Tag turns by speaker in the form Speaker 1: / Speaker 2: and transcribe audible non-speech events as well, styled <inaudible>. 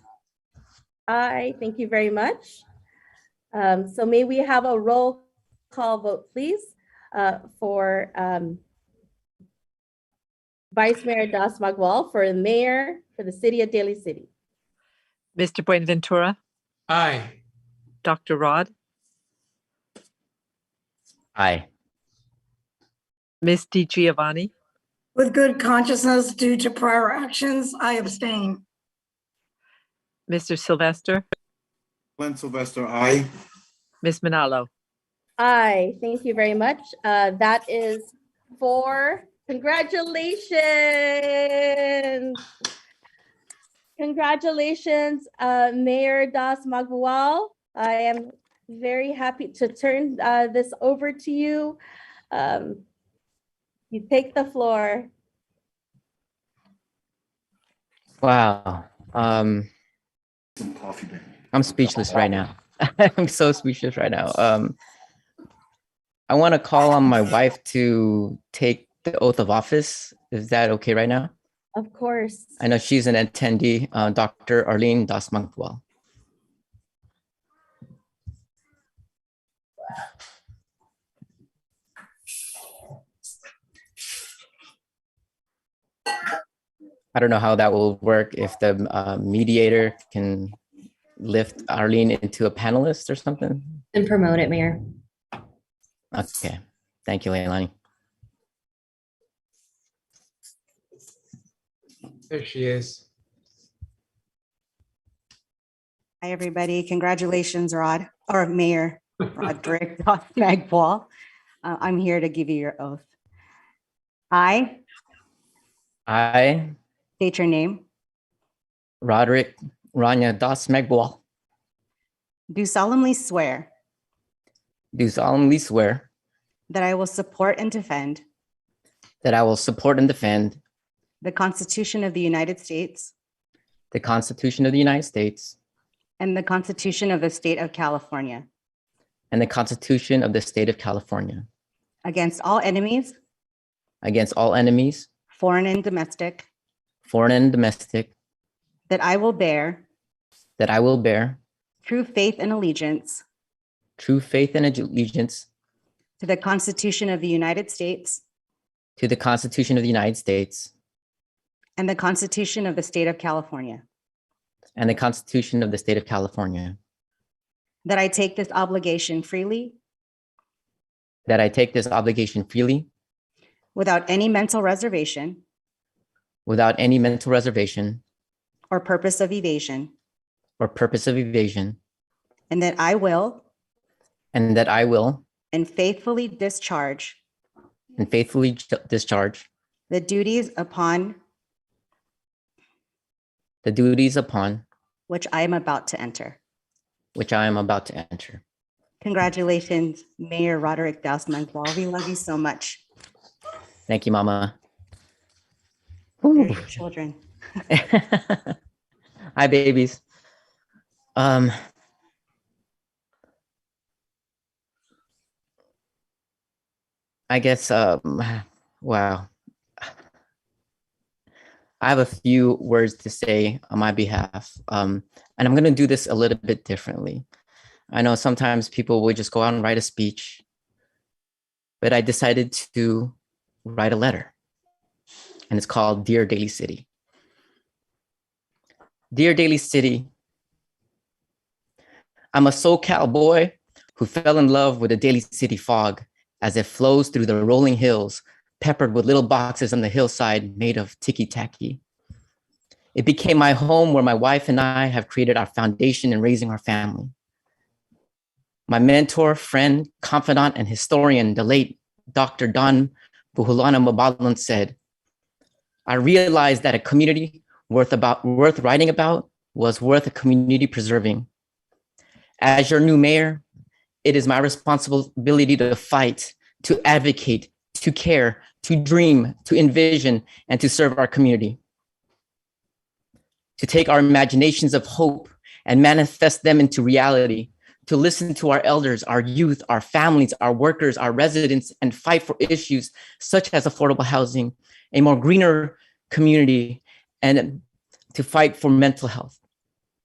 Speaker 1: Aye, thank you very much. Um, So may we have a roll call vote, please, uh, for um, Vice Mayor Das Magwal, for the mayor, for the city of Daly City?
Speaker 2: Mr. Buenaventura,
Speaker 3: Aye.
Speaker 2: Dr. Rod,
Speaker 4: Aye.
Speaker 2: Ms. Di Giovanni,
Speaker 5: With good consciousness due to prior actions, I abstain.
Speaker 2: Mr. Sylvester,
Speaker 6: Glenn Sylvester, aye.
Speaker 2: Ms. Manalo.
Speaker 1: Aye, thank you very much. Uh, That is four. Congratulations. Congratulations, uh, Mayor Das Magwal. I am very happy to turn uh, this over to you. Um, You take the floor.
Speaker 4: Wow. Um,
Speaker 6: Some coffee, baby.
Speaker 4: I'm speechless right now. <laughs> I'm so speechless right now. Um, I want to call on my wife to take the oath of office. Is that okay right now?
Speaker 1: Of course.
Speaker 4: I know she's an attendee, uh, Dr. Arlene Dasmangwal. I don't know how that will work if the uh, mediator can lift Arlene into a panelist or something.
Speaker 7: And promote it, Mayor.
Speaker 4: Okay, thank you, Leilani.
Speaker 3: There she is.
Speaker 8: Hi, everybody. Congratulations, Rod, or Mayor Roderick <laughs> Magwal. Uh, I'm here to give you your oath. I
Speaker 4: I,
Speaker 8: state your name,
Speaker 4: Roderick Rania Dasmangwal,
Speaker 8: do solemnly swear
Speaker 4: do solemnly swear
Speaker 8: that I will support and defend
Speaker 4: that I will support and defend
Speaker 8: the Constitution of the United States
Speaker 4: the Constitution of the United States
Speaker 8: and the Constitution of the State of California
Speaker 4: and the Constitution of the State of California
Speaker 8: against all enemies,
Speaker 4: against all enemies,
Speaker 8: foreign and domestic,
Speaker 4: foreign and domestic,
Speaker 8: that I will bear
Speaker 4: that I will bear
Speaker 8: true faith and allegiance
Speaker 4: true faith and allegiance
Speaker 8: to the Constitution of the United States
Speaker 4: to the Constitution of the United States
Speaker 8: and the Constitution of the State of California,
Speaker 4: and the Constitution of the State of California,
Speaker 8: that I take this obligation freely
Speaker 4: that I take this obligation freely
Speaker 8: without any mental reservation
Speaker 4: without any mental reservation
Speaker 8: or purpose of evasion,
Speaker 4: or purpose of evasion,
Speaker 8: and that I will
Speaker 4: and that I will
Speaker 8: and faithfully discharge
Speaker 4: and faithfully ju- discharge
Speaker 8: the duties upon
Speaker 4: the duties upon
Speaker 8: which I am about to enter.
Speaker 4: which I am about to enter.
Speaker 8: Congratulations, Mayor Roderick Dausman-Gual. We love you so much.
Speaker 4: Thank you, Mama.
Speaker 8: They're
Speaker 4: Whew.
Speaker 8: your children.
Speaker 4: <laughs> Hi, babies. Um, I guess. Um, wow. I have a few words to say on my behalf, um, and I'm going to do this a little bit differently. I know sometimes people will just go out and write a speech, but I decided to write a letter, and it's called "Dear Daily City." Dear Daily City, I'm a SoCal boy who fell in love with the Daily City fog as it flows through the rolling hills, peppered with little boxes on the hillside made of ticky tacky. It became my home where my wife and I have created our foundation in raising our family. My mentor, friend, confidant, and historian, the late Dr. Don Buhulana Mabalan said, I realized that a community worth about worth writing about was worth a community preserving. As your new mayor, it is my responsibility to fight, to advocate, to care, to dream, to envision, and to serve our community. To take our imaginations of hope and manifest them into reality, to listen to our elders, our youth, our families, our workers, our residents, and fight for issues such as affordable housing, a more greener community, and to fight for mental health.